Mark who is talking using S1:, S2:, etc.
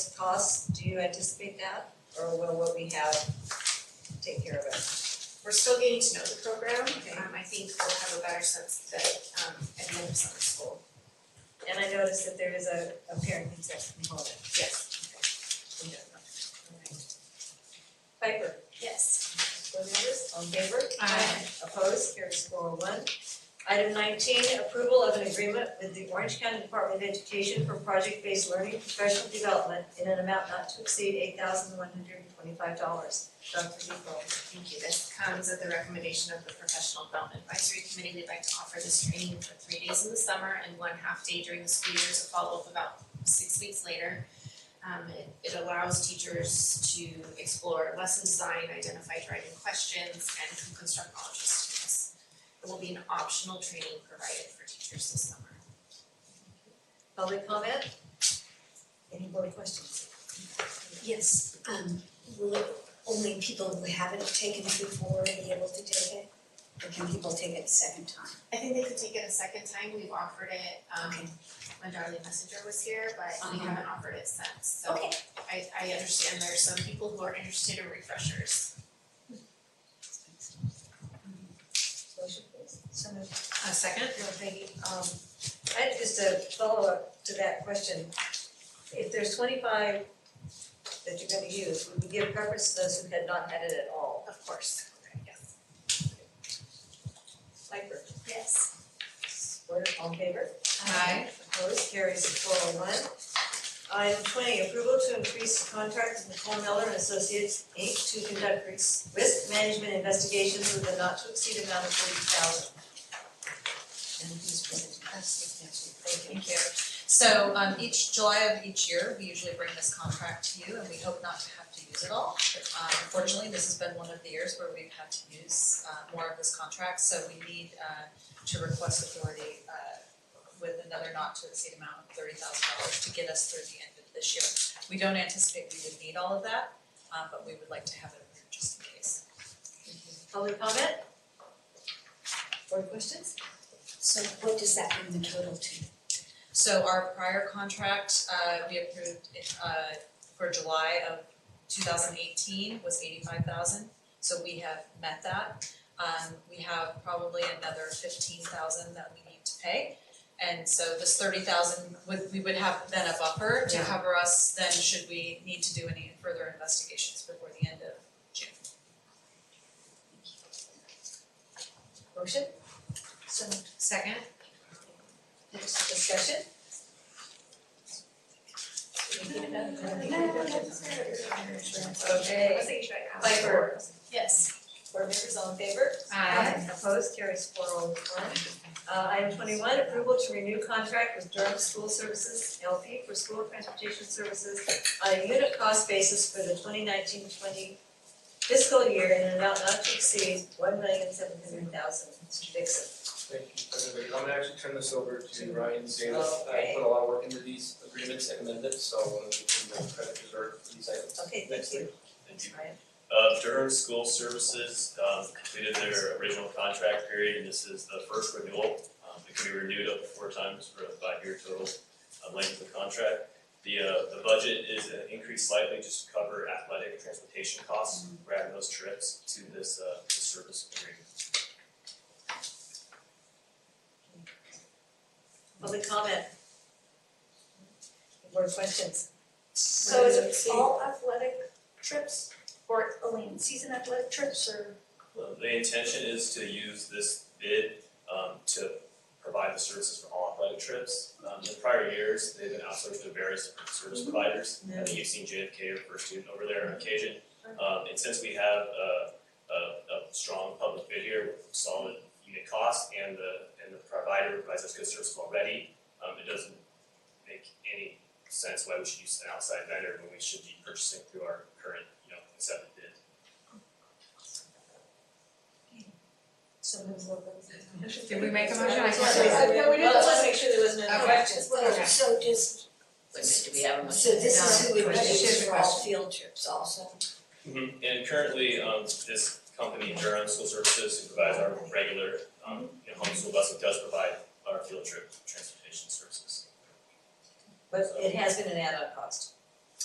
S1: costs, do you anticipate that, or will what we have take care of it?
S2: We're still getting to know the program,
S1: Okay.
S2: um, I think we'll have a better sense of that, um, at the end of summer school,
S1: And I noticed that there is a, a parent consent component.
S2: yes.
S1: Yeah. Alright. Piper,
S2: Yes.
S1: board members, all in favor?
S2: Aye.
S1: Opposed, carries four oh one. Item nineteen, approval of an agreement with the Orange County Department of Education for project-based learning professional development in an amount not to exceed eight thousand one hundred and twenty-five dollars. Dr. Depot.
S2: Thank you, this comes at the recommendation of the Professional Development Advisory Committee, we'd like to offer this training for three days in the summer and one half day during the school year, so follow up about six weeks later. Um, it, it allows teachers to explore lesson design, identify driving questions, and to construct knowledge with students. It will be an optional training provided for teachers this summer.
S1: Public comment? Any board questions?
S3: Yes, um, will only people who haven't taken it before be able to take it? Or can people take it a second time?
S2: I think they could take it a second time, we've offered it, um,
S3: Okay.
S2: when Darlene Messenger was here, but we
S3: Uh-huh.
S2: haven't offered it since, so
S3: Okay.
S2: I, I understand there's some people who are interested in refreshers.
S1: Motion please. So moved.
S4: A second?
S1: No, Peggy, um, I had just a follow-up to that question. If there's twenty-five that you're gonna use, would we give preference to those who had not had it at all?
S2: Of course. Yes.
S1: Piper,
S3: Yes.
S1: we're all in favor?
S4: Aye.
S1: Opposed, carries four oh one. Item twenty, approval to increase the contract with Nicole Miller and Associates, Inc. to conduct risk risk management investigations with a not to exceed amount of forty thousand.
S3: And who's presenting? Thank
S4: Thank you. So um each July of each year, we usually bring this contract to you and we hope not to have to use it all. Um unfortunately, this has been one of the years where we've had to use uh more of this contract, so we need uh to request authority uh with another not to exceed amount of thirty thousand dollars to get us through the end of this year. We don't anticipate we would need all of that, uh but we would like to have it approved just in case.
S1: Public comment? Board questions?
S3: So what does that bring the total to?
S4: So our prior contract, uh, we approved, uh, for July of two thousand eighteen was eighty-five thousand, so we have met that. Um, we have probably another fifteen thousand that we need to pay. And so this thirty thousand would, we would have then a buffer to
S1: Yeah.
S4: cover us, then should we need to do any further investigations before the end of June.
S1: Motion?
S4: So Second?
S1: Next discussion?
S2: I was
S1: Okay,
S2: thinking, should I ask?
S1: Piper,
S2: Yes.
S1: board members all in favor?
S2: Aye.
S4: Uh,
S1: Opposed, carries four oh one. Uh, item twenty-one, approval to renew contract with Durham School Services LP for school transportation services on a unit cost basis for the 2019-20 fiscal year in an amount not to exceed one million seven hundred thousand. Mr. Dixon.
S5: Thank you, everybody. I'm gonna actually turn this over to Ryan Salas.
S1: Okay.
S5: I put a lot of work into these agreements and amendments, so I want to give him the credit deserved for these items.
S1: Okay,
S5: Next
S1: thank you.
S5: week.
S6: Thank you.
S1: Sorry.
S6: Uh, Durham School Services, um, completed their original contract period, and this is the first renewal. Um, it can be renewed up to four times for a five-year total, uh, length of the contract. The, uh, the budget is uh, increased slightly just to cover athletic transportation costs, we're adding those trips to this, uh, this service agreement.
S1: Public comment? Board questions?
S7: So is it all athletic trips or only in season athletic trips or?
S6: Uh, The intention is to use this bid, um, to provide the services for all athletic trips. Um, in prior years, they've been outsourced to various different service providers. I think you've seen JFK or First Student over there on occasion. Um, and since we have a, a, a strong public bid here with solid unit cost and the, and the provider provides us good service already, um, it doesn't make any sense why we should use an outside vendor when we should be purchasing through our current, you know, accepted bid.
S1: So move
S4: Did we make a motion?
S1: I
S3: can't remember.
S1: No, we didn't, let's make sure there wasn't any
S4: Okay.
S1: questions.
S3: Well, so just. do we have a So this is who we
S1: No.
S3: budget for all field trips also?
S6: Mhm. And currently, um, this company, Durham School Services, who provides our regular, um, you know, homeschool busing, does provide our field trip transportation services.
S1: But it has been an add-on cost.